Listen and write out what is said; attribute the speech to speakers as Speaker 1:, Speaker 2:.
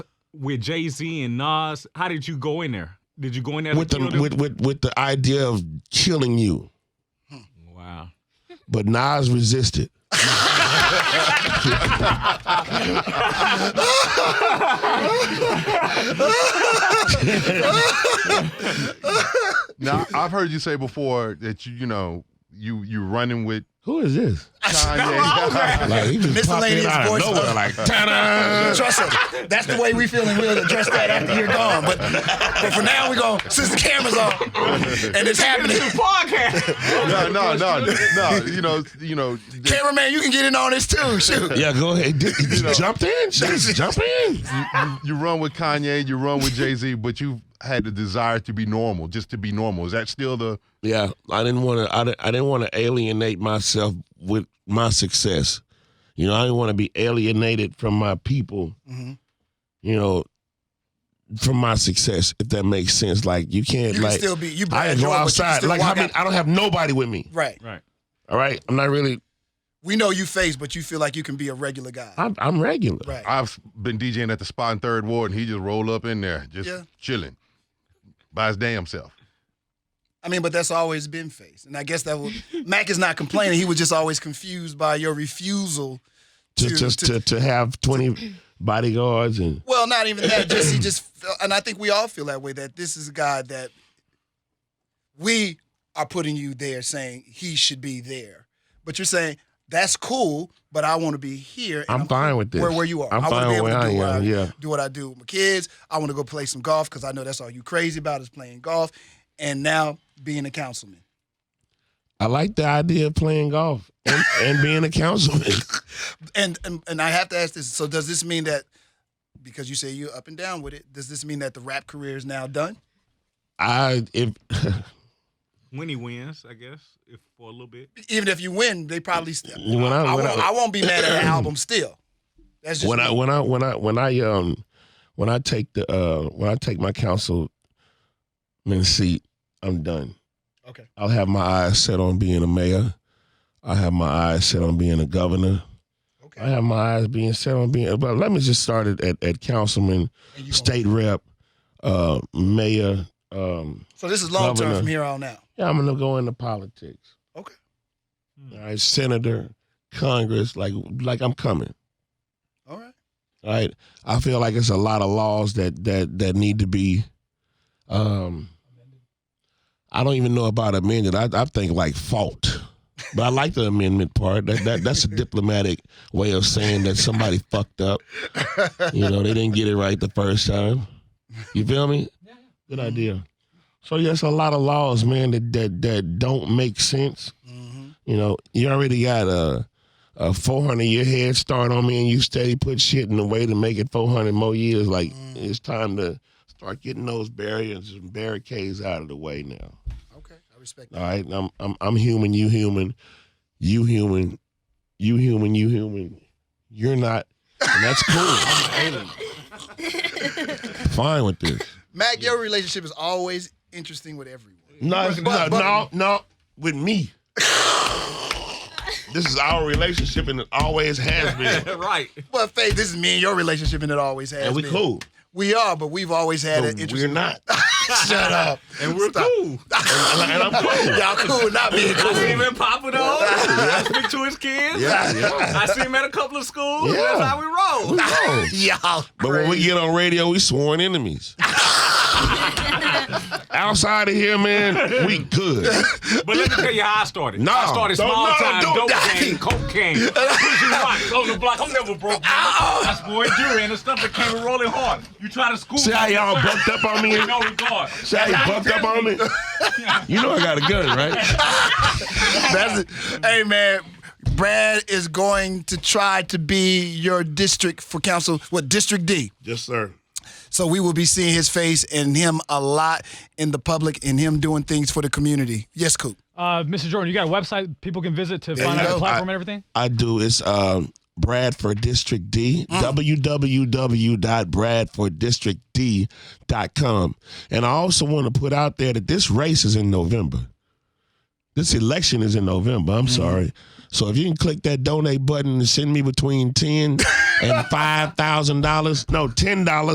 Speaker 1: with Jay Z and Nas. How did you go in there? Did you go in there
Speaker 2: with
Speaker 1: to kill
Speaker 2: the
Speaker 1: them?
Speaker 2: with, with with the idea of killing you,
Speaker 1: wow.
Speaker 2: but Nas resisted.
Speaker 3: Now I've heard you say before that you you know you you running with
Speaker 2: Who is this?
Speaker 3: Kanye.
Speaker 2: Like he just popped in
Speaker 4: Miscellaneous
Speaker 2: out of
Speaker 4: voice.
Speaker 2: nowhere, like ta-da!
Speaker 4: Trust us. That's the way we feeling. We'll address that after you're gone. But but for now, we're going to since the camera's on and it's happening.
Speaker 1: podcast.
Speaker 3: no, no, no, no. You know, you know. that
Speaker 4: Cameraman, you can get in on this too. Shoot.
Speaker 2: Yeah, go ahead. Did- did you Jump in, just jump in.
Speaker 3: You run with Kanye, you run with Jay Z, but you've had the desire to be normal, just to be normal. Is that still the?
Speaker 2: Yeah, I didn't want to. I didn't, I didn't want to alienate myself with my success. You know, I didn't want to be alienated from my people.
Speaker 4: Mhm.
Speaker 2: You know, from my success, if that makes sense. Like you
Speaker 4: You
Speaker 2: can't
Speaker 4: can
Speaker 2: like
Speaker 4: still be. You
Speaker 2: I
Speaker 4: Brad
Speaker 2: go
Speaker 4: Jordan, but you can
Speaker 2: outside.
Speaker 4: still
Speaker 2: Like I
Speaker 4: walk
Speaker 2: mean,
Speaker 4: out.
Speaker 2: I don't have nobody with me.
Speaker 4: Right.
Speaker 1: right.
Speaker 2: All right, I'm not really.
Speaker 4: We know you face, but you feel like you can be a regular guy.
Speaker 2: I'm, I'm regular.
Speaker 4: right.
Speaker 3: I've been DJing at the spot in Third Ward, and he just roll up in there, just
Speaker 4: Yeah.
Speaker 3: chilling by his damn self.
Speaker 4: I mean, but that's always been face, and I guess that was, Mac is not complaining. He was just always confused by your refusal.
Speaker 2: To,
Speaker 4: To-
Speaker 2: just
Speaker 4: to-
Speaker 2: to, to have 20 bodyguards and
Speaker 4: Well, not even that. Just he just, and I think we all feel that way. That this is a guy that we are putting you there, saying he should be there, but you're saying that's cool, but I want to be here. and
Speaker 2: I'm fine with this.
Speaker 4: Where where you are,
Speaker 2: I'm
Speaker 4: I want to
Speaker 2: fine
Speaker 4: be able
Speaker 2: where
Speaker 4: to
Speaker 2: I
Speaker 4: do what I,
Speaker 2: am, yeah.
Speaker 4: do what I do with my kids. I want to go play some golf because I know that's all you crazy about is playing golf, and now being a councilman.
Speaker 2: I like the idea of playing golf and, and being a councilman.
Speaker 4: And, and and I have to ask this. So does this mean that because you say you're up and down with it, does this mean that the rap career is now done?
Speaker 2: I if
Speaker 1: When he wins, I guess, if for a little bit.
Speaker 4: Even if you win, they probably still.
Speaker 2: When I-
Speaker 4: I,
Speaker 2: when
Speaker 4: won't,
Speaker 2: I-
Speaker 4: I won't be mad at the album still. That's just
Speaker 2: when I
Speaker 4: me.
Speaker 2: when I when I when I um when I take the uh when I take my councilman seat, I'm done.
Speaker 4: okay.
Speaker 2: I'll have my eyes set on being a mayor. I have my eyes set on being a governor.
Speaker 4: Okay.
Speaker 2: I have my eyes being set on being. But let me just start it at, at councilman,
Speaker 4: And you
Speaker 2: state rep, uh, mayor. Um,
Speaker 4: gonna- so this is long term
Speaker 2: governor.
Speaker 4: from here on out.
Speaker 2: yeah, I'm gonna go into politics.
Speaker 4: Okay.
Speaker 2: All
Speaker 1: Hmm.
Speaker 2: right, senator, Congress, like like I'm coming.
Speaker 4: All right.
Speaker 2: right? I feel like it's a lot of laws that that that need to be. Um, I don't even know about amended. I, I think like fault, but I like the amendment part. That, that that's a diplomatic way of saying that somebody fucked up. You know, they didn't get it right the first time. You feel me? Good idea. So yes, a lot of laws, man, that that that don't make sense.
Speaker 4: hmm
Speaker 2: You know, you already got a a 400 year head start on me, and you steady put shit in the way to make it 400 more years. Like
Speaker 4: Mm.
Speaker 2: it's time to start getting those barriers and barricades out of the way now.
Speaker 4: Okay. I respect
Speaker 2: All
Speaker 4: that.
Speaker 2: right, I'm I'm I'm human, you human, you human, you human, you human. You're not, and that's cool. I'm an alien. Fine with this.
Speaker 4: Mac, your relationship is always interesting with everyone.
Speaker 2: No, it's
Speaker 4: But-
Speaker 2: no,
Speaker 4: but-
Speaker 2: no, no, with me. this is our relationship, and it always has been.
Speaker 1: right.
Speaker 4: But Faith, this is me and your relationship, and it always has.
Speaker 2: And we
Speaker 4: been.
Speaker 2: cool.
Speaker 4: We are, but we've always had
Speaker 2: But
Speaker 4: an
Speaker 2: we're
Speaker 4: interesting.
Speaker 2: not.
Speaker 4: Shut up.
Speaker 1: And we're
Speaker 4: Stop.
Speaker 1: cool.
Speaker 2: And, and I'm cool.
Speaker 4: Y'all cool, not being
Speaker 1: I
Speaker 4: cool.
Speaker 1: see him at Papa though. I speak to his kids.
Speaker 2: Yeah, yeah.
Speaker 1: I see him at a couple of schools.
Speaker 2: Yeah.
Speaker 1: That's how we roll.
Speaker 2: No.
Speaker 4: Y'all.
Speaker 2: But when we get on radio, we sworn enemies. Outside of here, man, we good.
Speaker 1: But let me tell you how I started.
Speaker 2: No,
Speaker 1: I started
Speaker 2: don't-
Speaker 1: small
Speaker 2: no,
Speaker 1: time
Speaker 2: don't-
Speaker 1: dope game, cocaine, pushing rocks on the block. I'm never broke. man. That's boy during and stuff that came rolling hard. You try to school
Speaker 2: See how y'all bucked up on me?
Speaker 1: in no regard.
Speaker 2: See how you bucked up on me? You know I got a gun, right?
Speaker 4: That's it. Hey man, Brad is going to try to be your district for council. What district D?
Speaker 2: Yes, sir.
Speaker 4: So we will be seeing his face and him a lot in the public and him doing things for the community. Yes, Coop.
Speaker 5: Uh, Mr. Jordan, you got a website people can visit to
Speaker 4: There
Speaker 5: find
Speaker 4: you
Speaker 5: out
Speaker 4: go.
Speaker 5: the platform and everything?
Speaker 2: I do. It's um, Bradford District D, www.bradforddistrictd.com. And I also want to put out there that this race is in November. This election is in November. I'm sorry. So if you can click that donate button and send me between ten and five thousand dollars, no ten dollars.